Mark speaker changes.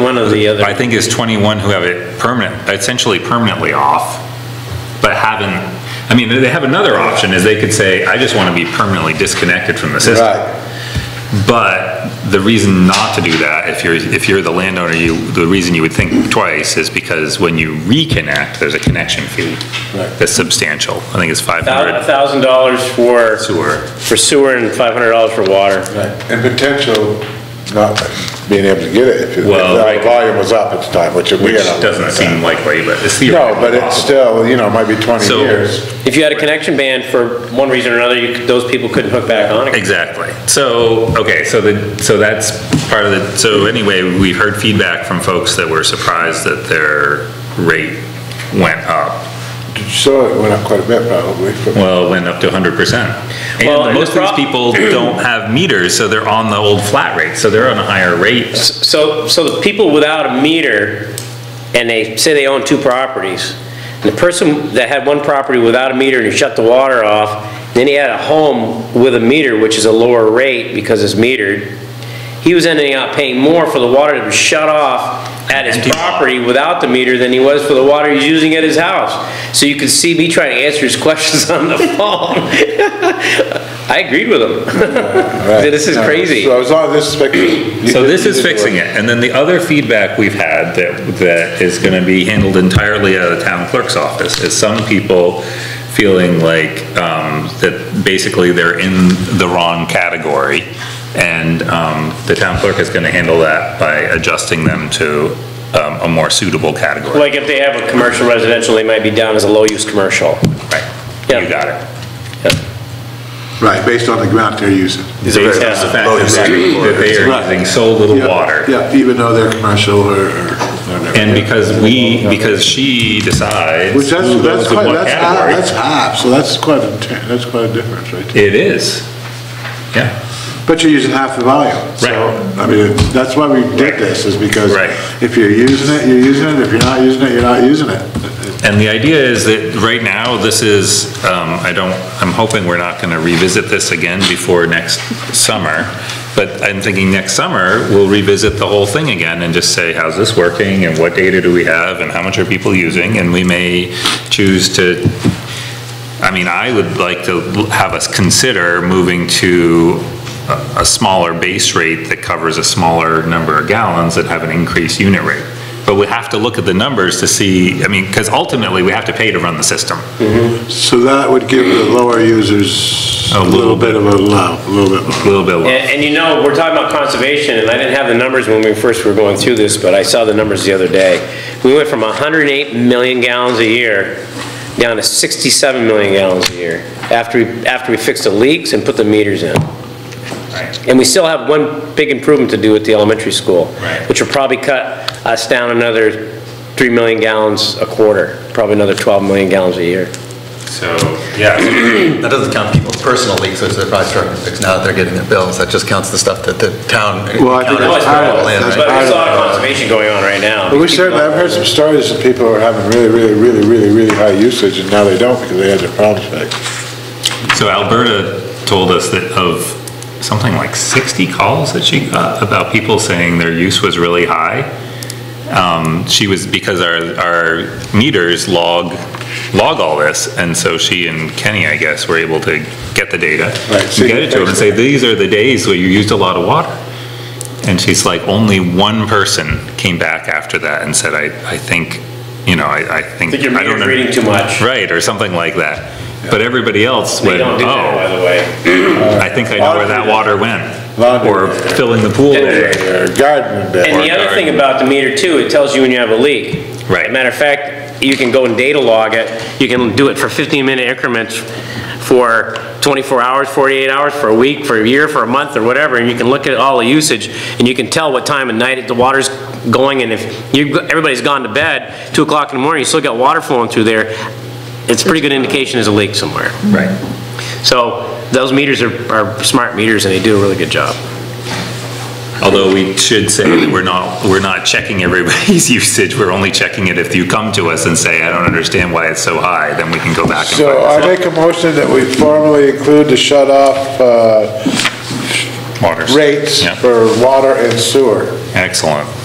Speaker 1: One of the other.
Speaker 2: I think it's 21 who have it permanent, essentially permanently off, but haven't, I mean, they have another option, is they could say, I just want to be permanently disconnected from the system.
Speaker 3: Right,
Speaker 2: But the reason not to do that, if you're, if you're the landowner, you, the reason you would think twice is because when you reconnect, there's a connection fee
Speaker 3: Right.
Speaker 2: that's substantial. I think it's 500
Speaker 1: Thousand dollars for,
Speaker 2: sewer.
Speaker 1: for sewer and five hundred dollars for water.
Speaker 3: right. And potential not being able to get it if if
Speaker 2: Well,
Speaker 3: the
Speaker 2: right.
Speaker 3: volume was up at the time, which we
Speaker 2: Which
Speaker 3: had. a-
Speaker 2: doesn't seem likely, but it's
Speaker 3: No,
Speaker 2: theoretically
Speaker 3: but it's
Speaker 2: possible.
Speaker 3: still, you know, it might be 20
Speaker 2: So-
Speaker 3: years.
Speaker 1: If you had a connection ban for one reason or another, you, could- those people couldn't hook back on again.
Speaker 2: Exactly. So, okay, so the, so that's part of the, so anyway, we've heard feedback from folks that were surprised that their rate went up.
Speaker 3: So it went up quite a bit probably. but-
Speaker 2: Well, it went up to hundred percent.
Speaker 1: Well,
Speaker 2: And
Speaker 1: and
Speaker 2: most of
Speaker 1: the
Speaker 2: these
Speaker 1: prob-
Speaker 2: people don't have meters, so they're on the old flat rate, so they're on a higher rate.
Speaker 1: So, so the people without a meter, and they say they own two properties, and the person that had one property without a meter and he shut the water off, then he had a home with a meter, which is a lower rate because it's metered, he was ending up paying more for the water that was shut off at his
Speaker 2: Empty lot.
Speaker 1: property without the meter than he was for the water he's using at his house. So you can see me trying to answer his questions on the phone. I agreed with him.
Speaker 3: Right.
Speaker 1: This is
Speaker 3: No,
Speaker 1: crazy.
Speaker 3: So as long as this is fixing.
Speaker 2: So this is fixing it, and then the other feedback we've had that, that is gonna be handled entirely out of the town clerk's office, is some people feeling like, um, that basically they're in the wrong category, and, um, the town clerk is gonna handle that by adjusting them to, um, a more suitable category.
Speaker 1: Like if they have a commercial residential, they might be down as a low-use commercial.
Speaker 2: Right,
Speaker 1: Yeah.
Speaker 2: you got it.
Speaker 3: Right, based on the amount they're using.
Speaker 2: Based on the fact that they are using so little
Speaker 3: Yeah,
Speaker 2: water.
Speaker 3: Yeah, even though they're commercial or. or-
Speaker 2: And because we, because she decides.
Speaker 3: Which that's,
Speaker 2: who goes
Speaker 3: that's
Speaker 2: in
Speaker 3: quite,
Speaker 2: what
Speaker 3: that's half,
Speaker 2: category.
Speaker 3: that's half, so that's quite a, ten- that's quite a difference right there.
Speaker 2: It is. Yeah.
Speaker 3: But you're using half the volume, so,
Speaker 2: Right.
Speaker 3: I mean, that's why we did
Speaker 2: Right.
Speaker 3: this, is because
Speaker 2: Right.
Speaker 3: if you're using it, you're using it, if you're not using it, you're not using it.
Speaker 2: And the idea is that right now, this is, um, I don't, I'm hoping we're not going to revisit this again before next summer. But I'm thinking next summer, we'll revisit the whole thing again and just say, how's this working? And what data do we have? And how much are people using? And we may choose to, I mean, I would like to have us consider moving to a- a smaller base rate that covers a smaller number of gallons and have an increased unit rate. But we have to look at the numbers to see, I mean, because ultimately, we have to pay to run the system.
Speaker 3: So that would give the lower users
Speaker 2: A
Speaker 3: a
Speaker 2: little
Speaker 3: little bit of a allow, a little bit
Speaker 2: A
Speaker 3: more.
Speaker 2: little bit low.
Speaker 1: And, and you know, we're talking about conservation, and I didn't have the numbers when we first were going through this, but I saw the numbers the other day. We went from 108 million gallons a year down to 67 million gallons a year after, we after we fixed the leaks and put the meters in. And we still have one big improvement to do at the elementary school.
Speaker 2: Right.
Speaker 1: Which will probably cut us down another 3 million gallons a quarter, probably another 12 million gallons a year.
Speaker 2: So, yeah,
Speaker 4: That doesn't count people's personal leaks, which they're probably struggling to fix now that they're getting their bills. That just counts the stuff that the town.
Speaker 3: Well, I think
Speaker 4: counted
Speaker 3: that's
Speaker 4: as
Speaker 3: part of it.
Speaker 4: rural land,
Speaker 3: That's
Speaker 4: right?
Speaker 1: But there's a lot of conservation going on right now.
Speaker 3: But we certainly, I've heard some stories of people who are having really, really, really, really, really high usage, and now they don't because they had their problems fixed.
Speaker 2: so Alberta told us that of something like 60 calls that she got about people saying their use was really high. Um, She was, because our, our meters log, log all this, and so she and Kenny, I guess, were able to get the data.
Speaker 3: Right, so
Speaker 2: and Get it to them and say, these are the days where you used a lot of water. And she's like, only one person came back after that and said, I, I think, you know, I, I think.
Speaker 1: I think your
Speaker 2: don't
Speaker 1: meter's
Speaker 2: know."
Speaker 1: reading too much.
Speaker 2: Right, or something like that. But everybody else
Speaker 1: They
Speaker 2: went,
Speaker 1: don't do that, by
Speaker 2: oh,
Speaker 1: the way.
Speaker 2: I think I know where that water went.
Speaker 3: Laundry.
Speaker 2: Or filling the pool today.
Speaker 3: Or gardening bed.
Speaker 1: And the other thing about the meter too, it tells you when you have a leak.
Speaker 2: Right.
Speaker 1: As a Matter of fact, you can go and data log it, you can do it for 15-minute increments for 24 hours, 48 hours, for a week, for a year, for a month, or whatever, and you can look at all the usage, and you can tell what time of night the water's going, and if you, everybody's gone to bed, 2 o'clock in the morning, you still got water flowing through there, it's a pretty good indication there's a leak somewhere.
Speaker 2: Right.
Speaker 1: So those meters are, are smart meters, and they do a really good job.
Speaker 2: Although we should say that we're not, we're not checking everybody's usage, we're only checking it if you come to us and say, I don't understand why it's so high, then we can go back and find
Speaker 3: So I
Speaker 2: out.
Speaker 3: make a motion that we formally include the shut-off uh,
Speaker 2: Waters.
Speaker 3: rates
Speaker 2: Yeah.
Speaker 3: for water and sewer.
Speaker 2: Excellent.